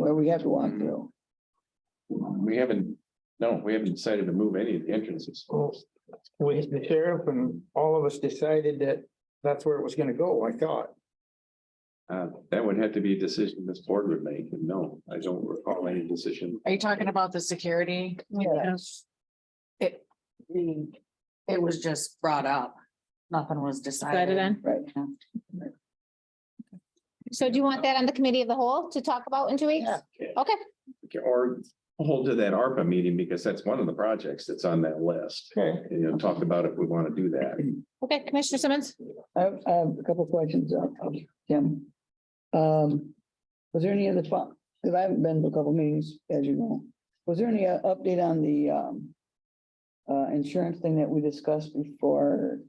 where we have to walk Mm. through. We haven't, no, we haven't decided to move any of the entrances. Well, we, the sheriff and all of us decided that that's where it was gonna go, I thought. Uh, that would have to be a decision this board would make, and no, I don't recall any decision. Are you talking about the security? Yes. It, the, it was just brought up. Nothing was Decided decided. on. Right. So do you want that on the committee of the whole to talk about in two weeks? Yeah. Okay, Or hold to that ARPA meeting, because that's one of the projects that's on that list. Okay. You know, talk about if we want to do that. okay, Commissioner Simmons? I have, I have a couple of questions, uh, Jim. Um, was there any other, because I haven't been to a couple of meetings, as you know. Was there any uh, update on the, um, uh, insurance thing that we discussed before?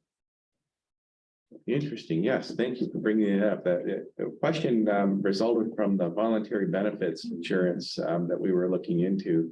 Interesting, yes, thank you for bringing it up. That, uh, the question um, resulted from the voluntary benefits insurance um, that we were looking into.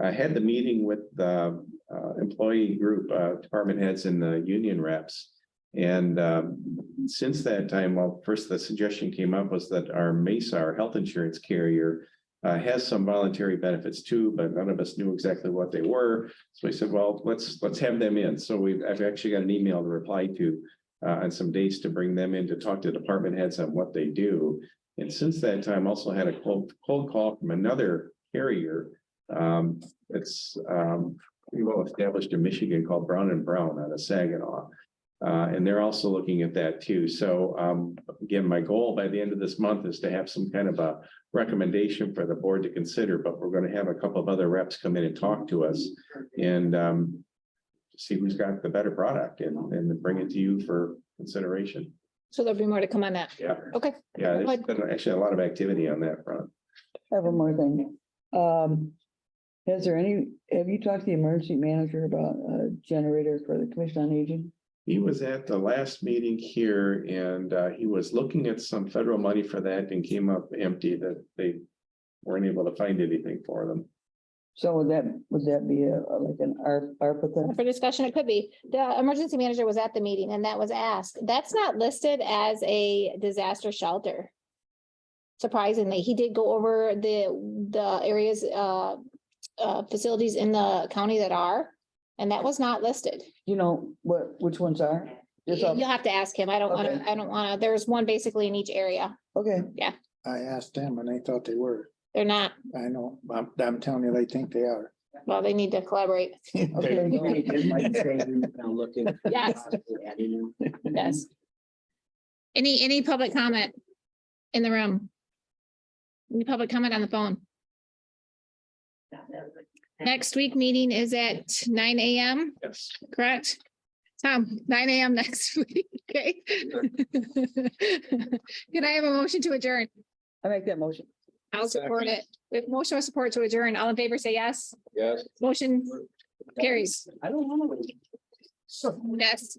I had the meeting with the uh, employee group, uh, department heads and the union reps. And um, since that time, well, first the suggestion came up was that our MESA, our health insurance carrier, uh, has some voluntary benefits too, but none of us knew exactly what they were. So we said, well, let's, let's have them in. So we've, I've actually got an email to reply to uh, and some dates to bring them in to talk to department heads on what they do. And since that time, also had a cold, cold call from another carrier. Um, it's, um, pretty well established in Michigan called Brown and Brown out of Saginaw. Uh, and they're also looking at that too. So, um, again, my goal by the end of this month is to have some kind of a recommendation for the board to consider, but we're going to have a couple of other reps come in and talk to us. And, um, see who's got the better product and, and bring it to you for consideration. So there'll be more to come on that. Yeah. Okay, Yeah, there's been actually a lot of activity on that front. I have one more thing. Um, has there any, have you talked to the emergency manager about a generator for the commission on aging? He was at the last meeting here and uh, he was looking at some federal money for that and came up empty that they weren't able to find anything for them. So would that, would that be a, like an ARP, ARPA thing? for discussion, it could be. The emergency manager was at the meeting and that was asked. That's not listed as a disaster shelter. Surprisingly, he did go over the, the areas, uh, uh, facilities in the county that are, and that was not listed. You know, what, which ones are? Just off- You'll have to ask him. I don't wanna, Okay. I don't wanna, there's one basically in each area. Okay, I asked them and they thought they were. They're not, I know, I'm, I'm telling you, they think they are. well, they need to collaborate. okay. Yes. Yes. Any, any public comment in the room? Any public comment on the phone? Next week meeting is at nine AM, Yes. correct? Tom, nine AM next week, okay? Can I have a motion to adjourn? I make that motion. I'll support it. We have motion with support to adjourn. All in favor, say yes. Yes. Motion carries. I don't know. Yes.